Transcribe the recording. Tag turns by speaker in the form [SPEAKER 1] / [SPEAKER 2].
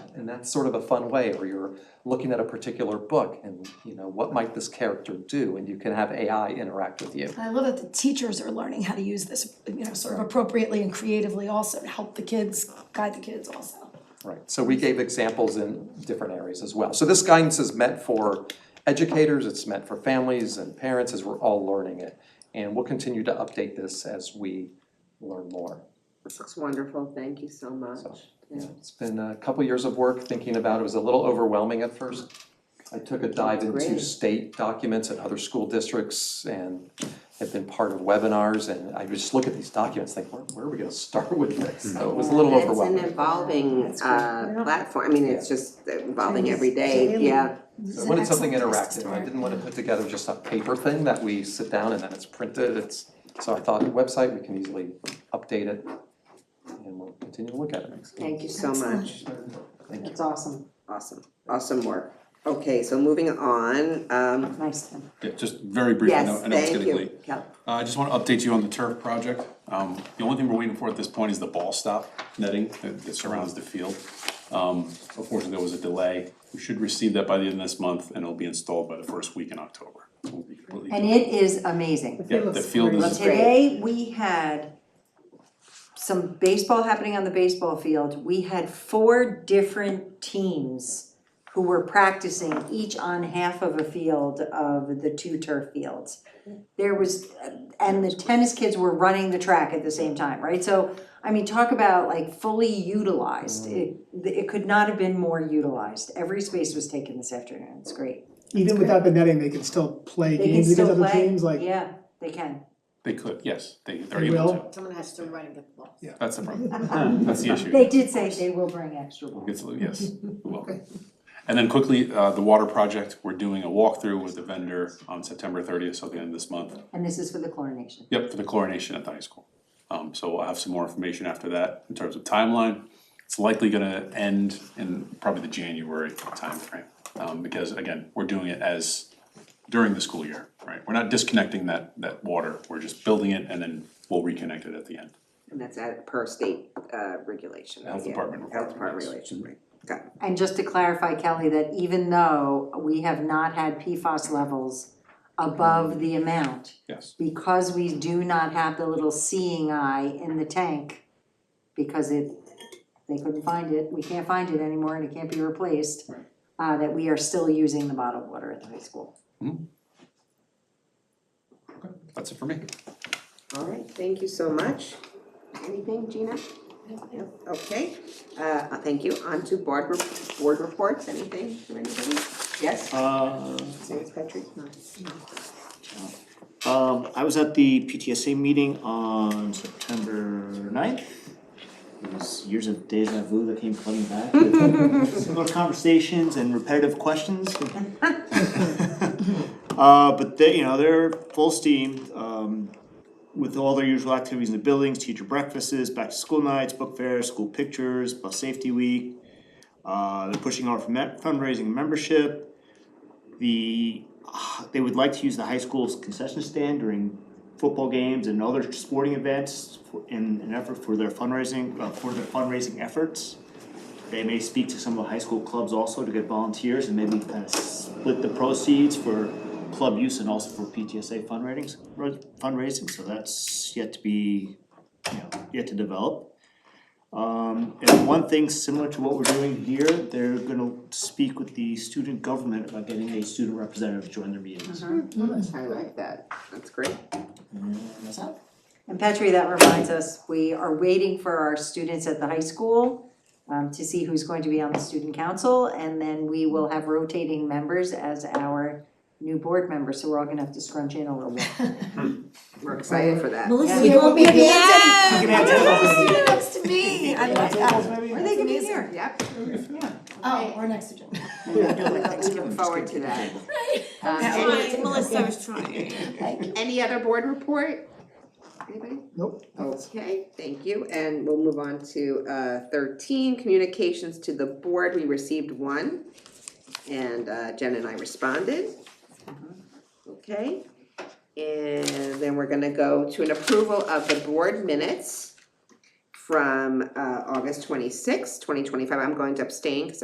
[SPEAKER 1] And that's sort of a fun way where you're looking at a particular book and, you know, what might this character do? And you can have AI interact with you.
[SPEAKER 2] I love that the teachers are learning how to use this, you know, sort of appropriately and creatively also to help the kids, guide the kids also.
[SPEAKER 1] Right, so we gave examples in different areas as well. So this guidance is meant for educators, it's meant for families and parents as we're all learning it. And we'll continue to update this as we learn more.
[SPEAKER 3] That's wonderful, thank you so much.
[SPEAKER 1] So,
[SPEAKER 3] Yeah.
[SPEAKER 1] It's been a couple years of work thinking about it, it was a little overwhelming at first. I took a dive into
[SPEAKER 3] Great.
[SPEAKER 1] state documents and other school districts and have been part of webinars and I just look at these documents, think, where, where are we gonna start with this? So it was a little overwhelming.
[SPEAKER 3] It's an evolving
[SPEAKER 2] That's great.
[SPEAKER 3] uh platform, I mean, it's just evolving every day,
[SPEAKER 2] Daily.
[SPEAKER 3] yeah,
[SPEAKER 2] This
[SPEAKER 1] I
[SPEAKER 2] is an
[SPEAKER 1] wanted something
[SPEAKER 2] excellent place to
[SPEAKER 1] interactive, I
[SPEAKER 2] start.
[SPEAKER 1] didn't wanna put together just a paper thing that we sit down and then it's printed, it's, so I thought website, we can easily update it. And we'll continue to look at it.
[SPEAKER 3] thank you so
[SPEAKER 2] Excellent.
[SPEAKER 3] much.
[SPEAKER 1] Thank you.
[SPEAKER 4] It's awesome,
[SPEAKER 3] Awesome, awesome work. Okay, so moving on, um,
[SPEAKER 4] nice then.
[SPEAKER 5] Yeah, just very briefly, I know,
[SPEAKER 3] yes,
[SPEAKER 5] I know it's
[SPEAKER 3] thank
[SPEAKER 5] getting
[SPEAKER 3] you.
[SPEAKER 5] late.
[SPEAKER 3] Yeah.
[SPEAKER 5] Uh, I just wanna update you on the turf project. Um, the only thing we're waiting for at this point is the ball stop netting that, that surrounds the field. Um, unfortunately, there was a delay. We should receive that by the end of this month and it'll be installed by the first week in October. It will be completely-
[SPEAKER 4] And it is amazing.
[SPEAKER 5] Yeah, the field
[SPEAKER 4] Well,
[SPEAKER 5] is,
[SPEAKER 3] great.
[SPEAKER 4] today, we had some baseball happening on the baseball field. We had four different teams who were practicing, each on half of a field of the two turf fields. There was, and the tennis kids were running the track at the same time, right? So, I mean, talk about like fully utilized. It, it could not have been more utilized. Every space was taken this afternoon. It's great.
[SPEAKER 6] Even without the netting, they can still play
[SPEAKER 4] They can
[SPEAKER 6] games against
[SPEAKER 4] still
[SPEAKER 6] other
[SPEAKER 4] play.
[SPEAKER 6] teams, like,
[SPEAKER 4] Yeah, they can.
[SPEAKER 5] they could, yes, they, they're
[SPEAKER 6] They
[SPEAKER 5] able
[SPEAKER 6] will?
[SPEAKER 5] to.
[SPEAKER 7] Someone has to run and get the ball.
[SPEAKER 5] That's the problem. That's the issue.
[SPEAKER 4] They did say they will bring extra balls.
[SPEAKER 5] It's- yes, you're welcome. And then quickly, uh, the water project, we're doing a walkthrough with the vendor on September thirtieth, so at the end of this month.
[SPEAKER 4] And this is for the chlorination.
[SPEAKER 5] Yep, for the chlorination at the high school. Um, so we'll have some more information after that in terms of timeline. It's likely gonna end in probably the January timeframe. Um, because again, we're doing it as during the school year, right? We're not disconnecting that, that water, we're just building it and then we'll reconnect it at the end.
[SPEAKER 3] And that's at per state uh regulation.
[SPEAKER 5] Health
[SPEAKER 3] yeah.
[SPEAKER 5] department
[SPEAKER 3] Health
[SPEAKER 5] requirement,
[SPEAKER 3] department
[SPEAKER 5] yes.
[SPEAKER 3] regulation, right, got it.
[SPEAKER 4] And just to clarify, Kelly, that even though we have not had PFAS levels above the amount,
[SPEAKER 5] Yes,
[SPEAKER 4] because we do not have the little seeing eye in the tank, because it, they couldn't find it, we can't find it anymore and it can't be replaced, uh, that we are still using the bottled water at the high school.
[SPEAKER 5] that's it for me.
[SPEAKER 3] All right, thank you so much. Anything, Gina? No? Okay, uh, uh, thank you. On to board rep- board reports, anything from anybody? Yes, Ms. Patrick?
[SPEAKER 8] Um, I was at the PTSA meeting on September 9th. It was years of deja vu that came flooding back with similar conversations and repetitive questions. Uh, but they, you know, they're full steam, um, with all their usual activities in the buildings, teacher breakfasts, back to school nights, book fairs, school pictures, bus safety week. Uh, they're pushing out for me- fundraising membership the, they would like to use the high school's concession stand during football games and other sporting events for- in an effort for their fundraising, uh, for their fundraising efforts. They may speak to some of the high school clubs also to get volunteers and maybe kind of split the proceeds for club use and also for PTSA fundraising, fundraising, so that's yet to be, you know, yet to develop. Um, and one thing similar to what we're doing here, they're gonna speak with the student government about getting a student representative to join their meetings.
[SPEAKER 3] I like that, that's great.
[SPEAKER 8] That's it.
[SPEAKER 4] And Petri, that reminds us, we are waiting for our students at the high school um, to see who's going to be on the student council, and then we will have rotating members as our new board members, so we're all gonna have to scrunch in a little bit.
[SPEAKER 3] We're excited for that.
[SPEAKER 2] Melissa,
[SPEAKER 4] we
[SPEAKER 2] you won't be at the
[SPEAKER 8] We can add tables.
[SPEAKER 2] end. You're next to me. I like that.
[SPEAKER 4] Are they gonna be
[SPEAKER 2] Amazing.
[SPEAKER 4] here?
[SPEAKER 3] Yep,
[SPEAKER 2] Oh, we're next to Jim.
[SPEAKER 3] looking forward to that. Um, any-
[SPEAKER 7] Trying, Melissa was trying.
[SPEAKER 3] Any other board report? Anybody?
[SPEAKER 6] nope, that's-
[SPEAKER 3] Okay, thank you, and we'll move on to uh thirteen, communications to the board, we received one. And uh Jen and I responded. Okay, and then we're gonna go to an approval of the board minutes from uh August twenty-sixth, twenty twenty-five, I'm going to abstain because